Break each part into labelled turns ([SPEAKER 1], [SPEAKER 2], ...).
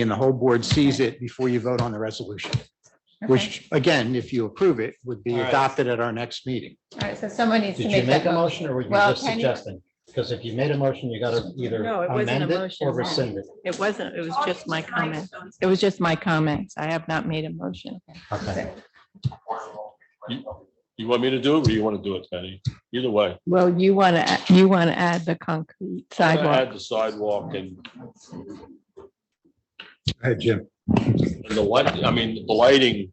[SPEAKER 1] and the whole board sees it before you vote on the resolution,
[SPEAKER 2] Okay.
[SPEAKER 1] which, again, if you approve it, would be
[SPEAKER 3] All right.
[SPEAKER 1] adopted at our next meeting.
[SPEAKER 2] All right, so someone needs to
[SPEAKER 3] Did you
[SPEAKER 2] make
[SPEAKER 3] make
[SPEAKER 2] that
[SPEAKER 3] a
[SPEAKER 2] motion.
[SPEAKER 3] motion or were you
[SPEAKER 2] Well,
[SPEAKER 3] just
[SPEAKER 2] can you-
[SPEAKER 3] suggesting? Because if you made a motion, you gotta either
[SPEAKER 4] No, it wasn't a
[SPEAKER 3] amend it
[SPEAKER 4] motion.
[SPEAKER 3] or rescind it.
[SPEAKER 4] It wasn't, it was just my comment. It was just my comments. I have not made a motion.
[SPEAKER 3] Okay.
[SPEAKER 5] You want me to do it or you want to do it, Penny? Either way.
[SPEAKER 4] Well, you want to, you want to add the concrete sidewalk.
[SPEAKER 5] Add the sidewalk and
[SPEAKER 1] Hey, Jim.
[SPEAKER 5] and the light, I mean, the lighting,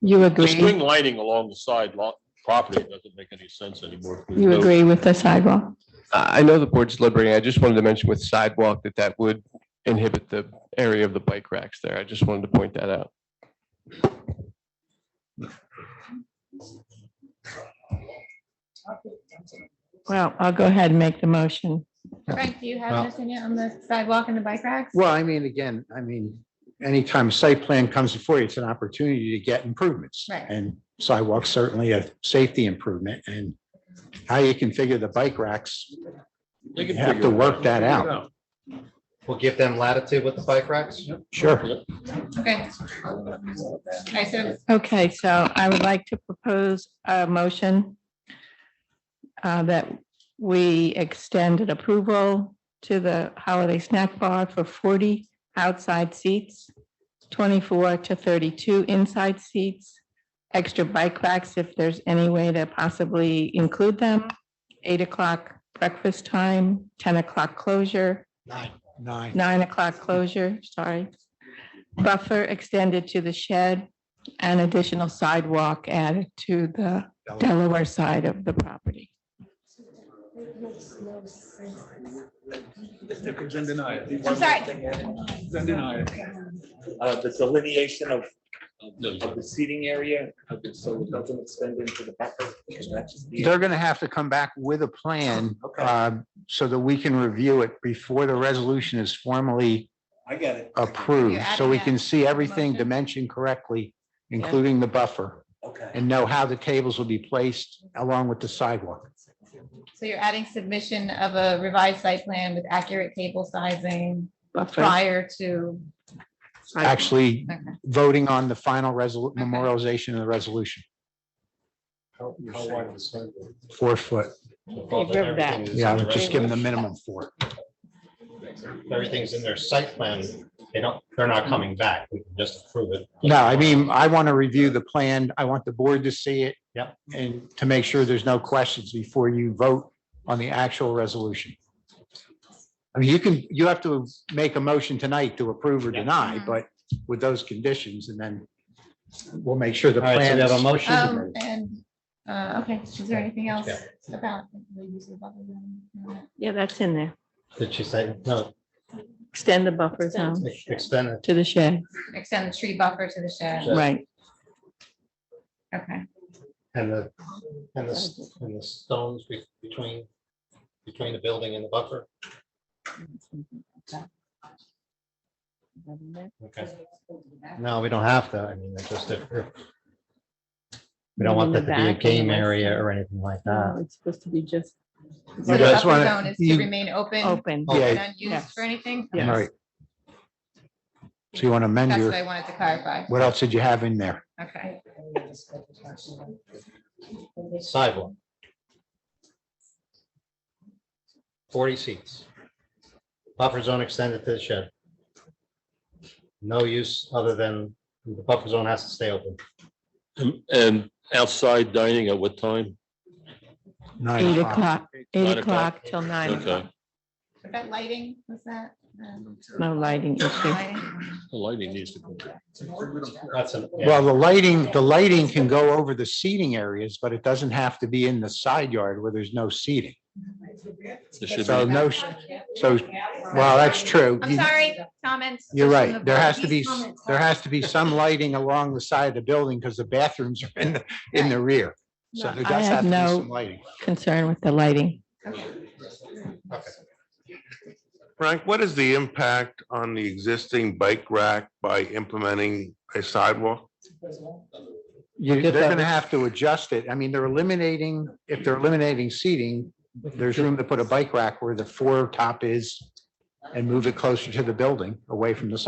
[SPEAKER 4] You
[SPEAKER 5] the
[SPEAKER 4] agree?
[SPEAKER 5] string lighting along the side lot property doesn't make any sense anymore.
[SPEAKER 4] You agree with the sidewalk?
[SPEAKER 6] I I know the board's deliberating. I just wanted to mention with sidewalk that that would inhibit the area of the bike racks there. I just wanted to point that out.
[SPEAKER 4] Well, I'll go ahead and make the motion.
[SPEAKER 2] Frank, do you have
[SPEAKER 1] Well-
[SPEAKER 2] anything yet on the sidewalk and the bike racks?
[SPEAKER 1] Well, I mean, again, I mean, anytime a site plan comes before you, it's an opportunity to get improvements.
[SPEAKER 2] Right.
[SPEAKER 1] And sidewalks certainly a safety improvement and how you configure the bike racks,
[SPEAKER 5] They
[SPEAKER 1] you
[SPEAKER 5] can
[SPEAKER 1] have
[SPEAKER 5] figure
[SPEAKER 1] to
[SPEAKER 5] it
[SPEAKER 1] work that
[SPEAKER 5] Figure it
[SPEAKER 1] out.
[SPEAKER 3] We'll give them latitude with the bike racks.
[SPEAKER 1] Sure.
[SPEAKER 2] Okay. All right, so
[SPEAKER 4] Okay, so I would like to propose a motion uh, that we extend an approval to the holiday snack bar for forty outside seats, twenty-four to thirty-two inside seats, extra bike racks if there's any way to possibly include them, eight o'clock breakfast time, ten o'clock closure,
[SPEAKER 1] Nine. Nine.
[SPEAKER 4] nine o'clock closure, sorry. Buffer extended to the shed and additional sidewalk added to the Delaware side of the property.
[SPEAKER 7] Then deny it.
[SPEAKER 2] I'm sorry,
[SPEAKER 7] Then deny it.
[SPEAKER 8] uh, the delineation of,
[SPEAKER 5] out.
[SPEAKER 8] of the seating area, of it, so it doesn't extend into the buffer. because that's just the-
[SPEAKER 1] They're going to have to come back with a plan
[SPEAKER 8] Okay.
[SPEAKER 1] uh, so that we can review it before the resolution is formally
[SPEAKER 7] I get
[SPEAKER 1] Uh,
[SPEAKER 7] it.
[SPEAKER 1] approved.
[SPEAKER 2] You're
[SPEAKER 1] So we
[SPEAKER 2] adding
[SPEAKER 1] can see everything
[SPEAKER 2] motion?
[SPEAKER 1] dimensioned correctly, including the buffer,
[SPEAKER 8] Okay.
[SPEAKER 1] and know how the tables will be placed along with the sidewalk.
[SPEAKER 2] so you're adding submission of a revised site plan with accurate table sizing
[SPEAKER 4] Buffer.
[SPEAKER 2] prior to,
[SPEAKER 1] Actually
[SPEAKER 2] okay.
[SPEAKER 1] voting on the final resol, memorialization of the resolution,
[SPEAKER 3] How how wide is the sidewalk?
[SPEAKER 1] four foot.
[SPEAKER 4] Favor that.
[SPEAKER 3] Everything is
[SPEAKER 1] Yeah, I
[SPEAKER 3] in the
[SPEAKER 1] would just
[SPEAKER 3] right-
[SPEAKER 1] give them the minimum four.
[SPEAKER 3] Everything's in their site plan. They don't, they're not coming back. We can just approve it.
[SPEAKER 1] No, I mean, I want to review the plan. I want the board to see it.
[SPEAKER 3] Yep.
[SPEAKER 1] And to make sure there's no questions before you vote on the actual resolution. I mean, you can, you have to make a motion tonight to approve or
[SPEAKER 3] Yeah.
[SPEAKER 1] deny,
[SPEAKER 2] Mhm.
[SPEAKER 1] but with those conditions, and then we'll make sure the
[SPEAKER 3] All right, so
[SPEAKER 1] plan.
[SPEAKER 3] we have a
[SPEAKER 1] is-
[SPEAKER 3] motion.
[SPEAKER 2] Um, and, uh, okay, is there anything else
[SPEAKER 3] Yeah.
[SPEAKER 2] about? the use of buffer zone?
[SPEAKER 4] Yeah, that's in there.
[SPEAKER 3] Did she say, no,
[SPEAKER 4] Extend the buffer zone
[SPEAKER 3] ex- extend it?
[SPEAKER 4] to the shed,
[SPEAKER 2] Extend the tree buffer to the shed,
[SPEAKER 4] right.
[SPEAKER 2] okay.
[SPEAKER 3] And the, and the, s- and the stones be- between, between the building and the buffer? Okay. No, we don't have to. I mean, it's just if we don't want that to be a game area or anything like that.
[SPEAKER 4] Oh, It's supposed to be just
[SPEAKER 2] So the
[SPEAKER 1] You guys
[SPEAKER 2] buffer
[SPEAKER 1] wanna-
[SPEAKER 2] zone is to
[SPEAKER 1] you-
[SPEAKER 2] remain open
[SPEAKER 4] open.
[SPEAKER 3] Yeah.
[SPEAKER 2] and
[SPEAKER 1] Yeah,
[SPEAKER 2] unused for anything?
[SPEAKER 4] Yeah.
[SPEAKER 1] right. So you want to amend
[SPEAKER 2] That's what
[SPEAKER 1] your,
[SPEAKER 2] I wanted to clarify,
[SPEAKER 1] what else did you have in there?
[SPEAKER 2] okay.
[SPEAKER 3] Sidewalk. Forty seats. Buffer zone extended to the shed. No use other than the buffer zone has to stay open.
[SPEAKER 5] And outside dining at what time?
[SPEAKER 1] Nine
[SPEAKER 4] Eight o'clock, eight
[SPEAKER 5] Nine
[SPEAKER 4] o'clock
[SPEAKER 5] o'clock.
[SPEAKER 4] till nine o'clock.
[SPEAKER 5] Okay,
[SPEAKER 2] Is that lighting, was that? um,
[SPEAKER 4] No lighting issue.
[SPEAKER 2] lighting?
[SPEAKER 5] the lighting needs to go.
[SPEAKER 3] That's an. yeah.
[SPEAKER 1] Well, the lighting, the lighting can go over the seating areas, but it doesn't have to be in the side yard where there's no seating.
[SPEAKER 5] It should
[SPEAKER 1] So
[SPEAKER 5] be,
[SPEAKER 1] no, sh- so, well, that's true.
[SPEAKER 2] I'm
[SPEAKER 1] You-
[SPEAKER 2] sorry, comments.
[SPEAKER 1] You're
[SPEAKER 2] from the
[SPEAKER 1] right. There
[SPEAKER 2] board.
[SPEAKER 1] has to be, s- there has to be some lighting along the side of the building because the bathrooms are in, the in the rear. So there does
[SPEAKER 4] I
[SPEAKER 1] have
[SPEAKER 4] have
[SPEAKER 1] to be
[SPEAKER 4] no-
[SPEAKER 1] some lighting.
[SPEAKER 4] Concern with the lighting.
[SPEAKER 9] Frank, what is the impact on the existing bike rack by implementing a sidewalk?
[SPEAKER 1] You,
[SPEAKER 3] Get
[SPEAKER 1] they're
[SPEAKER 3] that-
[SPEAKER 1] going to have to adjust it. I mean, they're eliminating, if they're eliminating seating, there's room to put a bike rack where the four top is and move it closer to the building, away from the sidewalk.